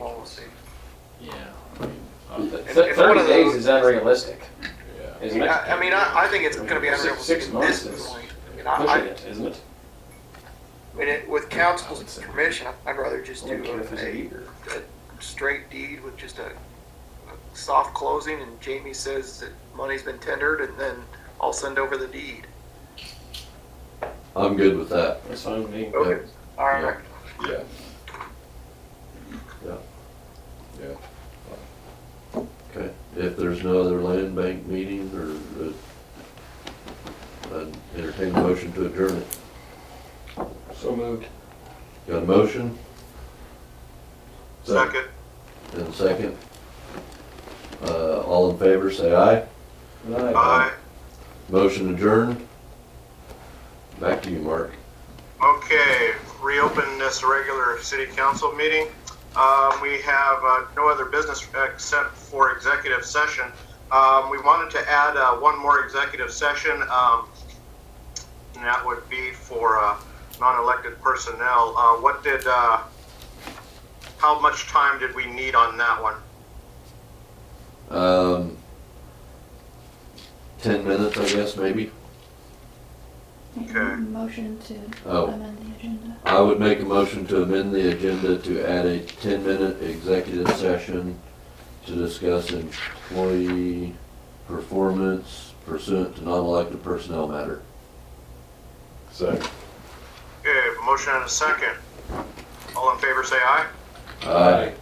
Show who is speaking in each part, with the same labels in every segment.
Speaker 1: policy.
Speaker 2: Yeah.
Speaker 1: If-
Speaker 3: Th-
Speaker 1: if one
Speaker 3: Thirty
Speaker 1: of the-
Speaker 3: days is unrealistic,
Speaker 1: I
Speaker 3: isn't
Speaker 1: mean,
Speaker 3: it?
Speaker 1: I, I mean, I, I think it's gonna be
Speaker 3: Six-
Speaker 1: unrealistic
Speaker 3: six
Speaker 1: at
Speaker 3: months
Speaker 1: this
Speaker 3: is
Speaker 1: point. I mean, I, I,
Speaker 3: Pushing it, isn't it?
Speaker 1: I mean, it- with council's permission, I- I'd rather just
Speaker 3: Only
Speaker 1: do
Speaker 3: care if it's a
Speaker 1: a,
Speaker 3: year.
Speaker 1: a straight deed with just a, a soft closing and Jamie says that money's been tendered and then I'll send over the deed.
Speaker 4: I'm good with that.
Speaker 3: That's fine with
Speaker 5: Oh.
Speaker 3: me.
Speaker 1: Okay, all right.
Speaker 4: Yeah. Yeah. Yeah. Okay, if there's no other land bank meeting or, uh, I'd entertain a motion to adjourn it.
Speaker 3: So moved.
Speaker 4: Got a motion? And a second? Uh, all in favor, say aye. Aye. Motion adjourned. Back to you, Mark.
Speaker 6: Okay, reopen this regular city council meeting. Um, We have uh, no other business except for executive session. Um, We wanted to add uh, one more executive session, um, and that would be for uh, non-elected personnel. Uh, What did, uh, how much time did we need on that one?
Speaker 4: Um, ten minutes, I guess, maybe?
Speaker 7: Make
Speaker 6: Okay.
Speaker 7: a motion to
Speaker 4: Oh.
Speaker 7: amend the agenda.
Speaker 4: I would make a motion to amend the agenda to add a ten-minute executive session to discuss employee performance pursuant to non-elected personnel matter.
Speaker 5: Second.
Speaker 6: Okay, motion and a second. All in favor, say aye.
Speaker 4: Aye.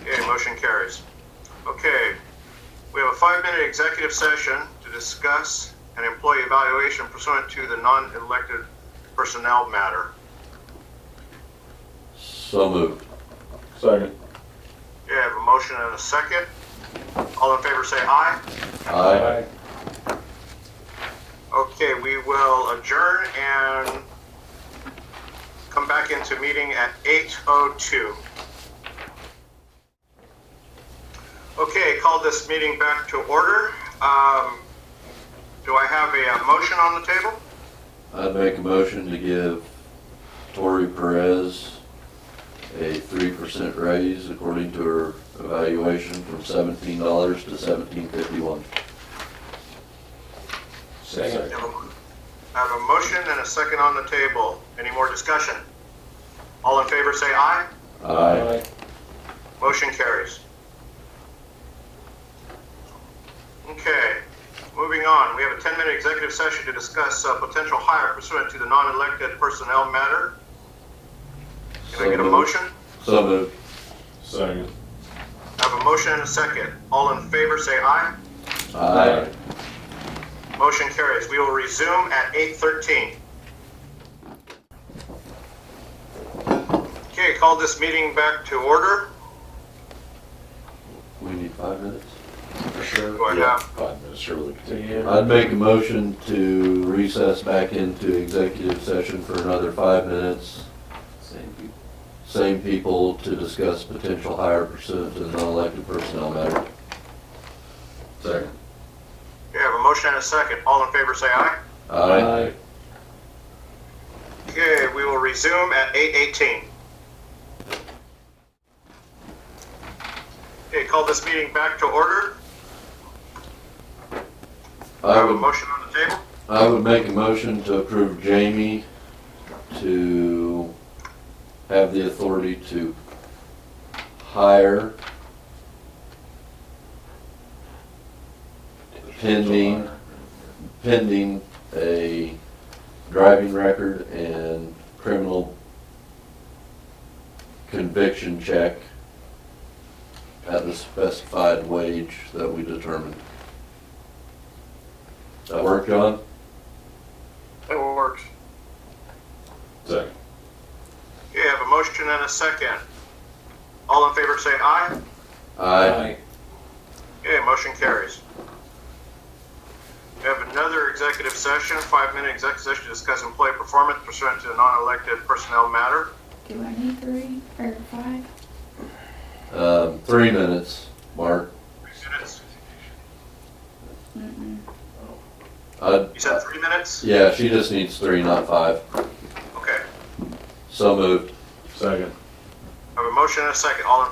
Speaker 6: Okay, motion carries. Okay, we have a five-minute executive session to discuss an employee evaluation pursuant to the non-elected personnel matter.
Speaker 4: So moved.
Speaker 5: Second.
Speaker 6: Okay, I have a motion and a second. All in favor say aye.
Speaker 4: Aye.
Speaker 6: Okay, we will adjourn and come back into meeting at 8:02. Okay, call this meeting back to order. Um, Do I have a uh, motion on the table?
Speaker 4: I'd make a motion to give Tori Perez a three percent raise according to her evaluation from seventeen dollars to seventeen fifty-one.
Speaker 6: I have a- I have a motion and a second on the table. Any more discussion? All in favor, say aye.
Speaker 4: Aye.
Speaker 6: Motion carries. Okay, moving on. We have a 10-minute executive session to discuss uh, potential hire pursuant to the non-elected personnel matter. Can I
Speaker 4: So
Speaker 6: get a
Speaker 4: moved.
Speaker 6: motion?
Speaker 4: So moved.
Speaker 5: Second.
Speaker 6: I have a motion and a second. All in favor, say aye.
Speaker 4: Aye.
Speaker 6: Motion carries. We will resume at 8:13. Okay, call this meeting back to order.
Speaker 4: We need five minutes?
Speaker 5: For sure.
Speaker 6: Do I
Speaker 4: Yeah.
Speaker 6: have,
Speaker 5: Five minutes, surely.
Speaker 4: I'd make a motion to recess back into executive session for another five minutes.
Speaker 3: Same people.
Speaker 4: Same people to discuss potential hire pursuant to the non-elected personnel matter. Second.
Speaker 6: we have a motion and a second. All in favor, say aye.
Speaker 4: Aye.
Speaker 6: Okay, we will resume at 8:18. Okay, call this meeting back to order. Do I
Speaker 4: I
Speaker 6: have a
Speaker 4: would,
Speaker 6: motion on the table?
Speaker 4: I would make a motion to approve Jamie to have the authority to hire Pending. pending a driving record and criminal conviction check at the specified wage that we determined. That work, John?
Speaker 6: That works.
Speaker 5: Second.
Speaker 6: Okay, I have a motion and a second. All in favor, say aye.
Speaker 4: Aye.
Speaker 6: Okay, motion carries. We have another executive session, five-minute executive session to discuss employee performance pursuant to a non-elected personnel matter.
Speaker 7: Do I need three or five?
Speaker 4: Um, three minutes, Mark.
Speaker 6: Three minutes?
Speaker 7: Mm-mm.
Speaker 4: I'd,
Speaker 6: You said three minutes?
Speaker 4: yeah, she just needs three, not five.
Speaker 6: Okay.
Speaker 4: So moved.
Speaker 5: Second.
Speaker 6: I have a motion and a second. All in